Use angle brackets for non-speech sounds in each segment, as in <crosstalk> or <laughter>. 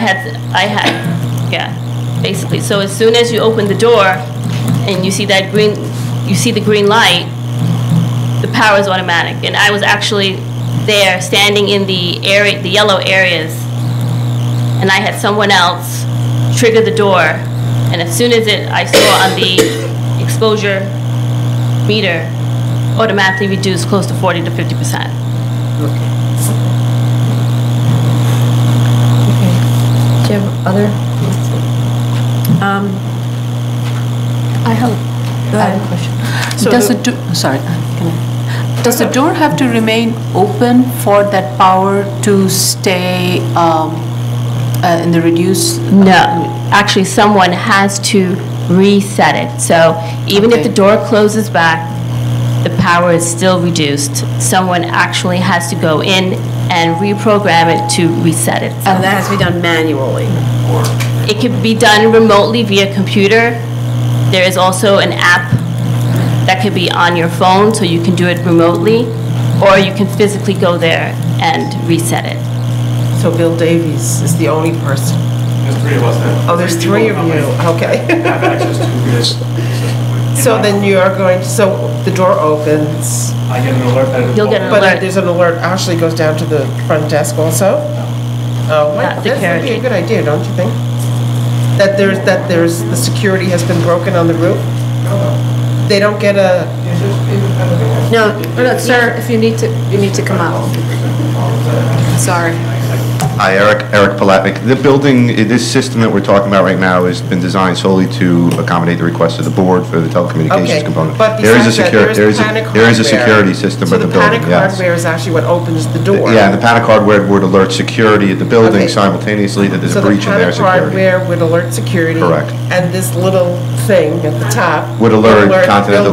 had, I had, yeah, basically. So as soon as you open the door and you see that green, you see the green light, the power is automatic. And I was actually there, standing in the area, the yellow areas, and I had someone else trigger the door. And as soon as it, I saw on the exposure meter, automatically reduced close to 40 to 50 percent. Okay. Do you have other? Um, I have, Go I ahead. have a question. So Does the- the, do- sorry, uh, can I- does the door have to remain open for that power to stay um, uh, in the reduced? No, actually, someone has to reset it. So even if Okay. the door closes back, the power is still reduced. Someone actually has to go in and reprogram it to reset it. and that has to be done manually. It can be done remotely via computer. There is also an app that could be on your phone, so you can do it remotely, or you can physically go there and reset it. So Bill Davies is the only person. There's three of us that. Oh, there's three of people you, okay. <laughs> Have access to this. system. So then you are going, so the door opens, I get an alert that. it's You'll get an open. but Alert. there's an alert, Ashley goes down to the front desk also? Oh, Not wow, the that would be a carriage. good idea, don't you think? That there's, that there's, the security has been broken on the roof? They don't get a, No, no, sir, if you need to, you need to come out. Sorry. Hi, Eric, Eric Palatnik. The building, this system that we're talking about right now has been designed solely to accommodate the request of the board for the okay. telecommunications component. But There is a besides that, secure- there is there is a- panic There is a hardware. security system at the building, So the panic yes. hardware is actually what opens the door? Yeah, and the panic hardware would alert security at the Okay. building simultaneously that there's So a the breach in their panic security. hardware would alert security. Correct. And this little thing at the top. Would alert Continental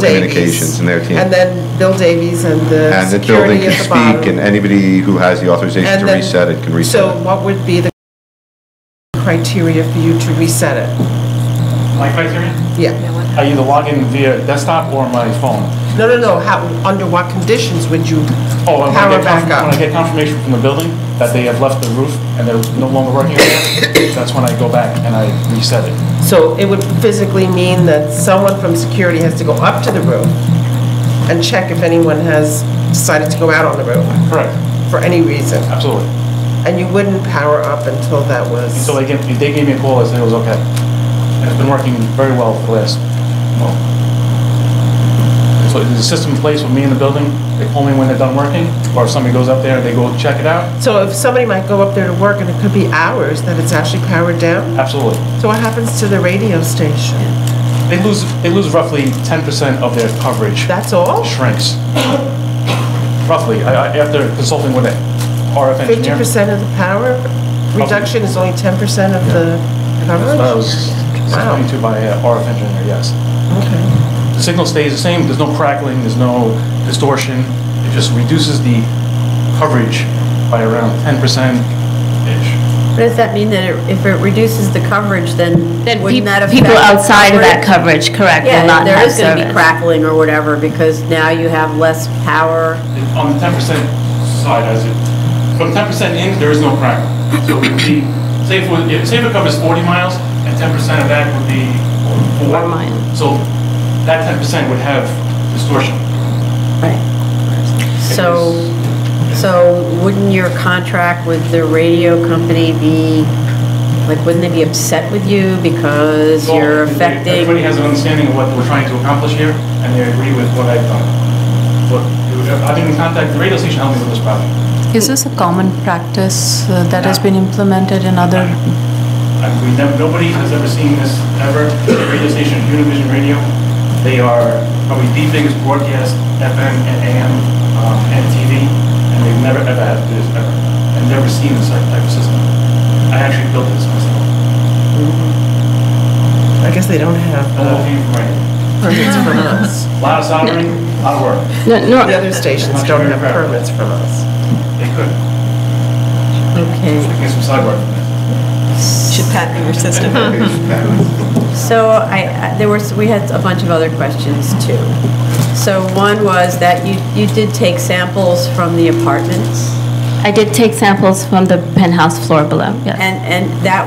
Bill Davies. Communications and their team. And then Bill Davies and the And the security building can at the bottom. speak, and anybody who has the authorization And to then- reset it can reset it. So what would be the criteria for you to reset it? My criteria, Yeah. I either log in via desktop or my phone. No, no, no, how, under what conditions would you Oh, and when I power get back confirm- when I up? get confirmation from the building that they have left the roof and they're no longer working on it, that's when I go back and I reset it. So it would physically mean that someone from security has to go up to the roof and check if anyone has decided to go out on the roof Correct, for any reason. absolutely. And you wouldn't power up until that was, So they gave, they gave me a call, I said it was okay. And it's been working very well for the last, well. So there's a system in place with me in the building, they call me when they're done working, or if somebody goes up there, they go check it out, so if somebody might go up there to work and it could be hours that it's actually powered down? absolutely. So what happens to the radio station? They lose, they lose roughly ten percent of their coverage. That's all? Shrinks. Roughly, I, I, after consulting with an RF Fifty engineer. percent of the power reduction is only ten percent of the That coverage? was Wow. explained to by an RF engineer, yes. Okay. The signal stays the same, there's no crackling, there's no distortion, it just reduces the coverage by around 10%-ish. But does that mean that it- if it reduces the coverage, then Then wouldn't that peop- affect? people outside of that coverage? coverage, correct, will Yeah, not there have is going to be service. crackling or whatever because now you have less power. On the 10% side, as it, from 10% in, there is no crackling. So it would be, say if, we- if- say if it covers 40 miles, and 10% of that would be four. Four miles. So that 10% would have distortion. So, so wouldn't your contract with the radio company be, like, wouldn't they be upset with you because So you're if affecting? Everybody has an understanding of what we're trying to accomplish here, and they agree with what I've done. But uh, I've been in contact, the radio station helped me with this project. Is this a common practice uh, that has been implemented in other? I mean, nev- nobody has ever seen this ever. The radio station, Univision Radio, they are probably the biggest broadcast FM and AM um, and TV, and they've never ever had to do this ever. I've never seen this type type of system. I actually built this myself. I guess they don't have The whole uh, thing from right. <laughs> permits from <laughs> us. A lot of soldering, a lot of work. No, nor- The other stations don't have permits from us. They could. Okay, They can get some side work. Should patent your system. so I, I- there was, we had a bunch of other questions too. So one was that you, you did take samples from the apartments I did take samples from the penthouse floor below, yes. And, and that